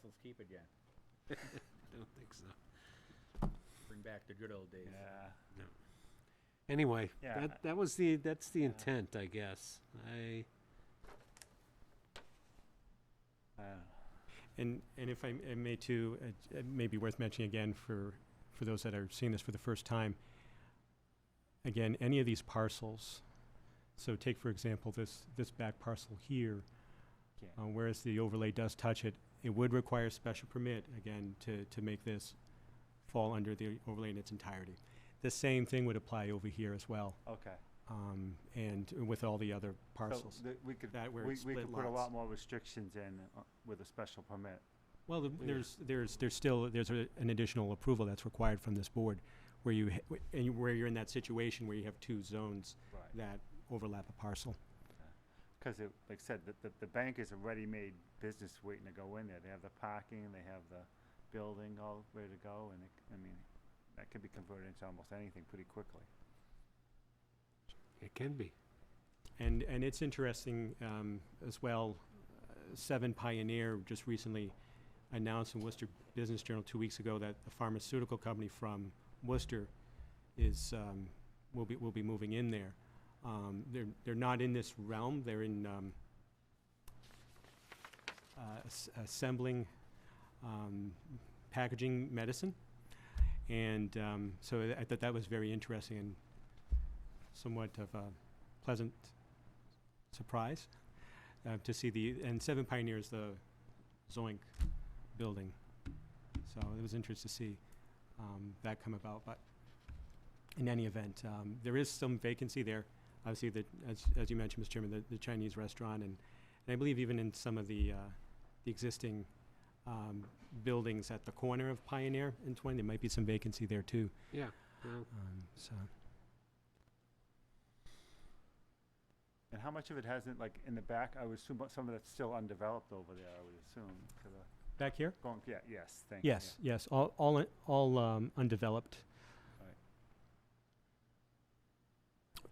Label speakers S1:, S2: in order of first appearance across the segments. S1: pencils keep again.
S2: I don't think so.
S1: Bring back the good old days.
S3: Yeah.
S2: Anyway,
S3: Yeah.
S2: that, that was the, that's the intent, I guess. I,
S3: Uh,
S4: And, and if I m- I may too, it- it may be worth mentioning again for, for those that are seeing this for the first time. Again, any of these parcels, so take for example this, this back parcel here,
S3: yeah.
S4: uh, whereas the overlay does touch it, it would require special permit, again, to, to make this fall under the overlay in its entirety. The same thing would apply over here as well,
S3: Okay.
S4: um, and with all the other
S3: So
S4: parcels.
S3: th- we could
S4: That where
S3: we,
S4: it's
S3: we
S4: split
S3: could put a
S4: lots.
S3: lot more restrictions in uh, with a special permit.
S4: Well, the- there's, there's, there's still, there's a- an additional approval that's required from this board, where you, ha- wh- and you- where you're in that situation where you have two zones
S3: Right.
S4: that overlap a parcel.
S3: Because it, like I said, the, the, the bank is a ready-made business waiting to go in there. They have the parking, they have the building all ready to go, and it, I mean, that could be converted into almost anything pretty quickly.
S2: it can be.
S4: And, and it's interesting um, as well, uh, Seven Pioneer just recently announced in Worcester Business Journal two weeks ago that a pharmaceutical company from Worcester is, um, will be, will be moving in there. Um, They're, they're not in this realm, they're in um, uh, as- assembling um, packaging medicine. And um, so I thought that was very interesting and somewhat of a pleasant surprise uh, to see the and Seven Pioneers the Zoink building. So it was interesting to see um, that come about. But in any event, um, there is some vacancy there. Obviously, the, as as you mentioned, Mr. Chairman, the, the Chinese restaurant and and I believe even in some of the uh, the existing um, buildings at the corner of Pioneer and Twain, there might be some vacancy there too.
S2: Yeah. Well,
S4: Um, so.
S3: And how much of it hasn't, like, in the back, I would assume some of that's still undeveloped over there, I would assume, to the,
S4: Back here?
S3: going, yeah, yes, thank you. yeah.
S4: Yes, yes, all, all, all um, undeveloped.
S5: I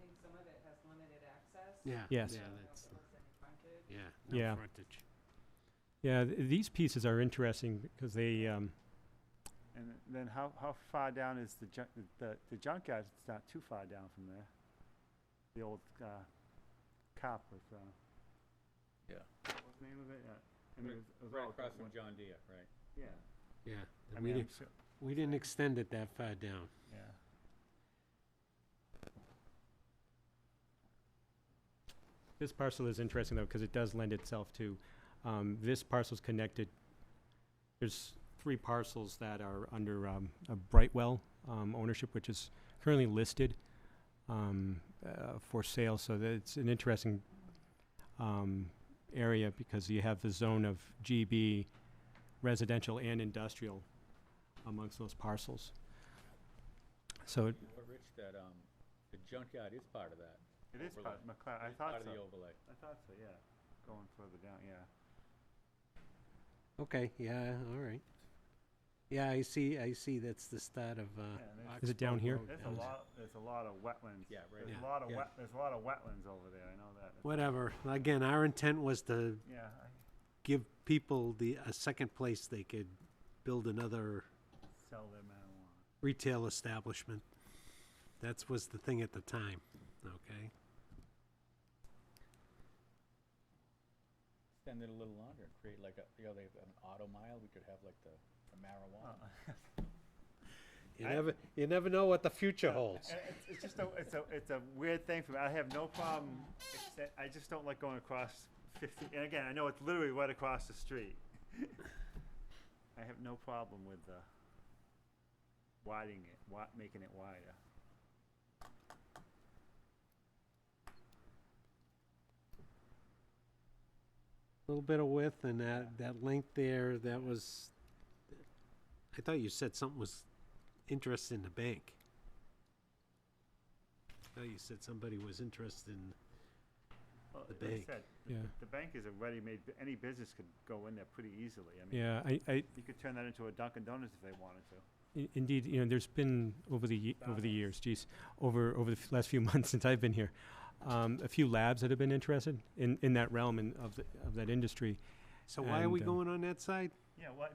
S5: think some of it has limited access.
S2: yeah.
S4: Yes.
S2: Yeah,
S5: I don't know if
S2: that's,
S5: it looks any frontage.
S2: yeah, no
S4: Yeah.
S2: frontage.
S4: Yeah, th- these pieces are interesting because they, um,
S3: And then how, how far down is the junk, the, the junkyard, it's not too far down from there. The old, uh, cop with, uh.
S1: Yeah.
S3: What's the name of it? Yeah. I mean, it was- it was
S1: Right
S3: all
S1: across from
S3: one-
S1: John Deere, right?
S3: Yeah.
S2: Yeah.
S3: I
S2: We
S3: mean, I'm
S2: didn't,
S3: sure,
S2: we didn't extend it that far down.
S3: yeah.
S4: this parcel is interesting though because it does lend itself to, um, this parcel's connected. There's three parcels that are under, um, a Brightwell, um, ownership, which is currently listed, um, uh, for sale. So that it's an interesting, um, area because you have the zone of GB residential and industrial amongst those parcels. So it-
S1: You know what, Rich, that, um, the junkyard is part of that.
S3: It is part,
S1: Overlay.
S3: McLeod, I
S1: It's part
S3: thought
S1: of the
S3: so,
S1: overlay.
S3: I thought so, yeah, going further down, yeah.
S2: Okay, yeah, all right. Yeah, I see, I see, that's the start of, uh.
S3: Yeah, that's-
S4: Is it down here?
S2: Oxbow Road
S3: There's a
S2: down there.
S3: lot, there's a lot of wetlands.
S1: Yeah, right.
S3: There's
S2: Yeah.
S3: a lot of
S1: Yeah.
S3: wet, there's a lot of wetlands over there, I know that.
S2: Whatever, again, our intent was to
S3: Yeah, I,
S2: give people the, a second place they could build another
S3: sell their marijuana.
S2: retail establishment. That's was the thing at the time, okay?
S1: Extend it a little longer, and create like a, you know, they have an auto mile, we could have like the the
S3: Uh-huh.
S1: marijuana.
S2: You
S3: I-
S2: never, you never know what the future holds.
S3: And It's, it's just a, it's a, it's a weird thing for me. I have no problem. except- I just don't like going across 50. And again, I know it's literally right across the street. I have no problem with uh, widening it, wi- making it wider.
S2: Little bit of width and that, that length there, that was, I thought you said something was interested in the bank. I thought you said somebody was interested in,
S3: Well,
S2: The
S3: like I
S2: bank.
S3: said, the,
S4: Yeah.
S3: the bank is a ready-made. bu- Any business could go in there pretty easily. I mean,
S4: yeah, I, I,
S3: you could turn that into a Dunkin' Donuts if they wanted to.
S4: I- Indeed, you know, there's been over the, ye- over the years, geez, over, over the f- last few months since I've been here, um, a few labs that have been interested in, in that realm and of, the- of that industry.
S2: so why are we
S4: And, um,
S2: going on that side?
S3: Yeah, well,